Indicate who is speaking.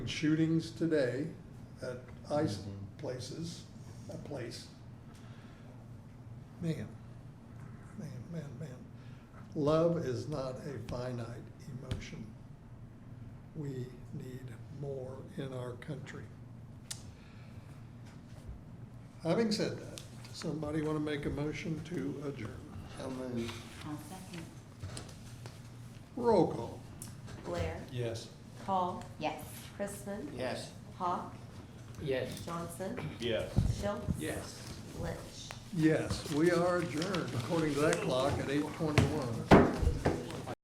Speaker 1: shootings today at ice places, a place. Man, man, man, man. Love is not a finite emotion. We need more in our country. Having said that, somebody want to make a motion to adjourn?
Speaker 2: So moved.
Speaker 3: I'll second.
Speaker 1: Roll call.
Speaker 4: Blair,
Speaker 1: Yes.
Speaker 4: Paul,
Speaker 3: Yes.
Speaker 4: Chrisman,
Speaker 2: Yes.
Speaker 4: Hawk,
Speaker 2: Yes.
Speaker 4: Johnson,
Speaker 5: Yes.
Speaker 4: Schultz,
Speaker 2: Yes.
Speaker 4: Lynch.
Speaker 1: Yes, we are adjourned according to that clock at eight twenty-one.